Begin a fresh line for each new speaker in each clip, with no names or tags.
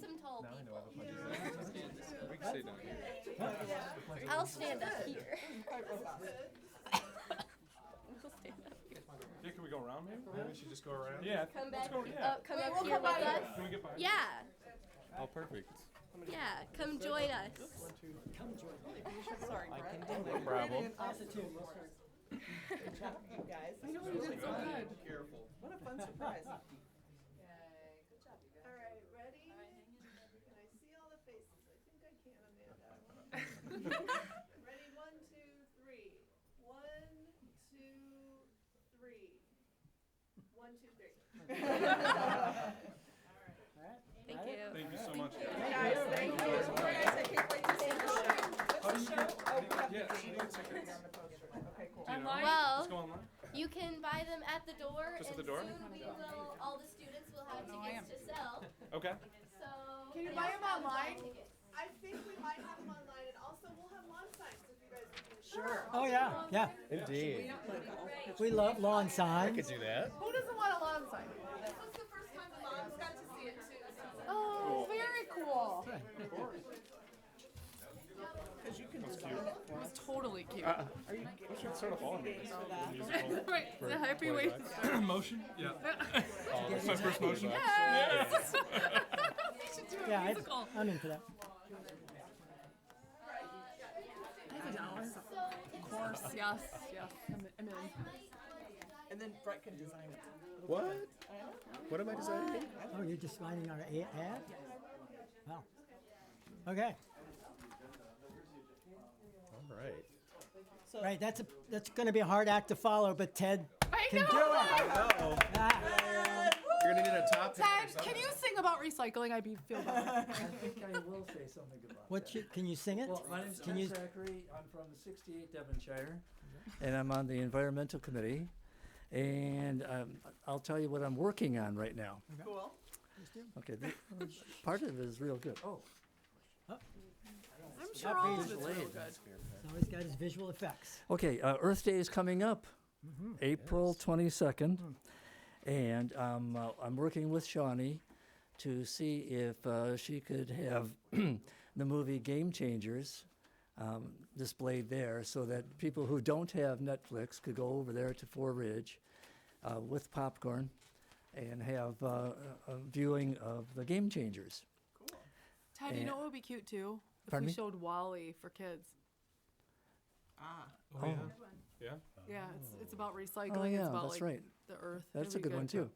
know all the places.
We can stay down here.
I'll stand up here.
Yeah, can we go around maybe?
Maybe we should just go around.
Yeah.
Come
let's
back,
go, yeah.
up, come up here with us.
Can we get behind?
Yeah,
Oh, perfect.
yeah, come join us.
Sorry, Brett. I can do
No problem.
Good job, you guys.
I know you did so good.
Careful.
What a fun surprise.
All right, ready? Can I see all the faces? I think I can, Amanda. Ready, one, two, three. One, two, three. One, two, three.
Thank you.
Thank you so much.
Guys, thank you. Guys, I can't wait to see the show.
What's the show? Oh, we have
Yeah,
the
she
date.
needs tickets.
On the poster. Okay, cool.
Do you know?
Online?
Let's
Well,
go online.
you can buy them at the door,
Just at
and
the door?
soon we will. All the students will have
no, I
tickets to sell.
Okay.
So
Can you
and
buy
also
'em
buy
online?
tickets.
I think we might have them online, and also we'll have lawn signs if you guys need to.
Sure.
Oh, yeah, yeah.
Indeed.
We love lawn signs.
do that.
Who doesn't want a lawn sign?
This was the first time the moms got to see it too, so.
Oh, very cool.
Because you can design it for us.
Totally cute.
We should start a ball meeting.
So that-
Musical.
Right, it's a happy way to start.
Motion? Yeah. Oh, That's my first
Yeah.
motion.
Yes! We should do
Yeah,
a
I'd-
musical.
I'm in for that.
So if
Of course, yes, yes, I'm, I'm in.
And then Brett can design it.
What? What am I designing?
Oh, you're just finding our a- ad? Wow. Okay,
All right.
right, that's a, that's gonna be a hard act to follow, but Ted
I
can do it.
Uh-oh.
Ah,
You're gonna need a top hat or
Ted, can
something.
you sing about recycling? I'd be feel better.
I think I will say something about
What
that.
you, can you sing it?
Well, my name's
Can
Ken
you-
Zachary. I'm from the 68 Devonshire, and I'm on the Environmental Committee. And um, I'll tell you what I'm working on right now.
Cool.
Okay, th- part of it is real good. Oh,
I'm sure all of it's
visually,
real good.
that's
He's always got his visual effects.
Okay, uh, Earth Day is coming up,
Mm-hmm.
April 22nd. And um, uh, I'm working with Shawnee to see if uh, she could have the movie Game Changers um, displayed there so that people who don't have Netflix could go over there to Four Ridge uh, with popcorn and have uh, a a viewing of the Game Changers.
Ted, you
Yeah.
know what would be cute too? If
Eh. Pardon
we
me?
showed Wally for kids.
Ah.
Oh, yeah. Yeah.
Yeah, it's, it's about recycling.
Oh, yeah,
it's about
that's
like
right.
the earth.
That's a
It'd be
good one too.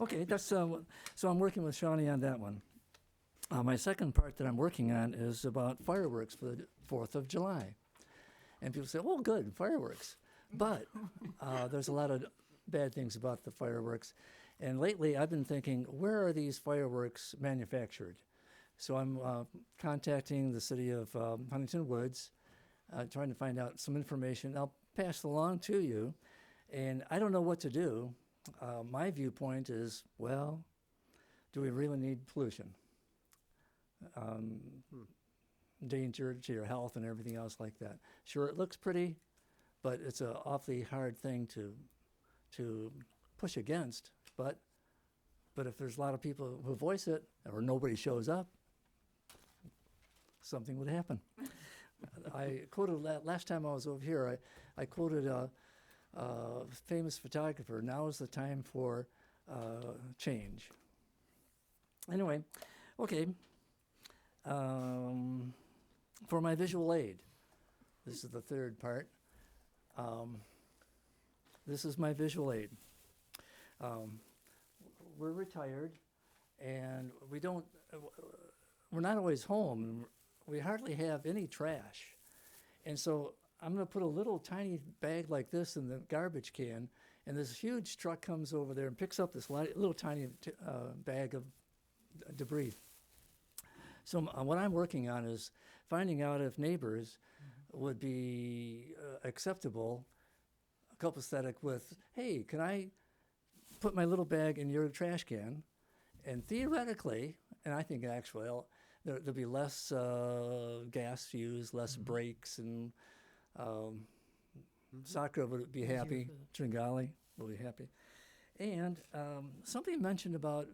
Okay, that's, uh, wha- so I'm working with Shawnee on that one. Uh, my second part that I'm working on is about fireworks for the Fourth of July. And people say, oh, good, fireworks. But, uh, there's a lot of bad things about the fireworks. And lately, I've been thinking, where are these fireworks manufactured? So I'm, uh, contacting the city of, um, Huntington Woods, uh, trying to find out some information. I'll pass along to you. And I don't know what to do. Uh, my viewpoint is well, do we really need pollution? Um, Danger to your health and everything else like that. Sure, it looks pretty, but it's an awfully hard thing to, to push against. But, but if there's a lot of people who voice it or nobody shows up, something would happen. I quoted la- last time I was over here, I, I quoted uh, uh, famous photographer, now is the time for uh, change. Anyway, okay. Um, for my visual aid, this is the third part. Um, this is my visual aid. Um, we're retired, and we don't. uh, w- uh, We're not always home. and We hardly have any trash. And so I'm going to put a little tiny bag like this in the garbage can, and this huge truck comes over there and picks up this li- little tiny t- uh, bag of d- debris. So m- uh, what I'm working on is finding out if neighbors would be uh, acceptable, copacetic with, hey, can I put my little bag in your trash can? And theoretically, and I think actually, I'll- there, there'll be less uh, gas used, less brakes, and um, Sakra would be happy. Tringali will be happy. And um, something mentioned about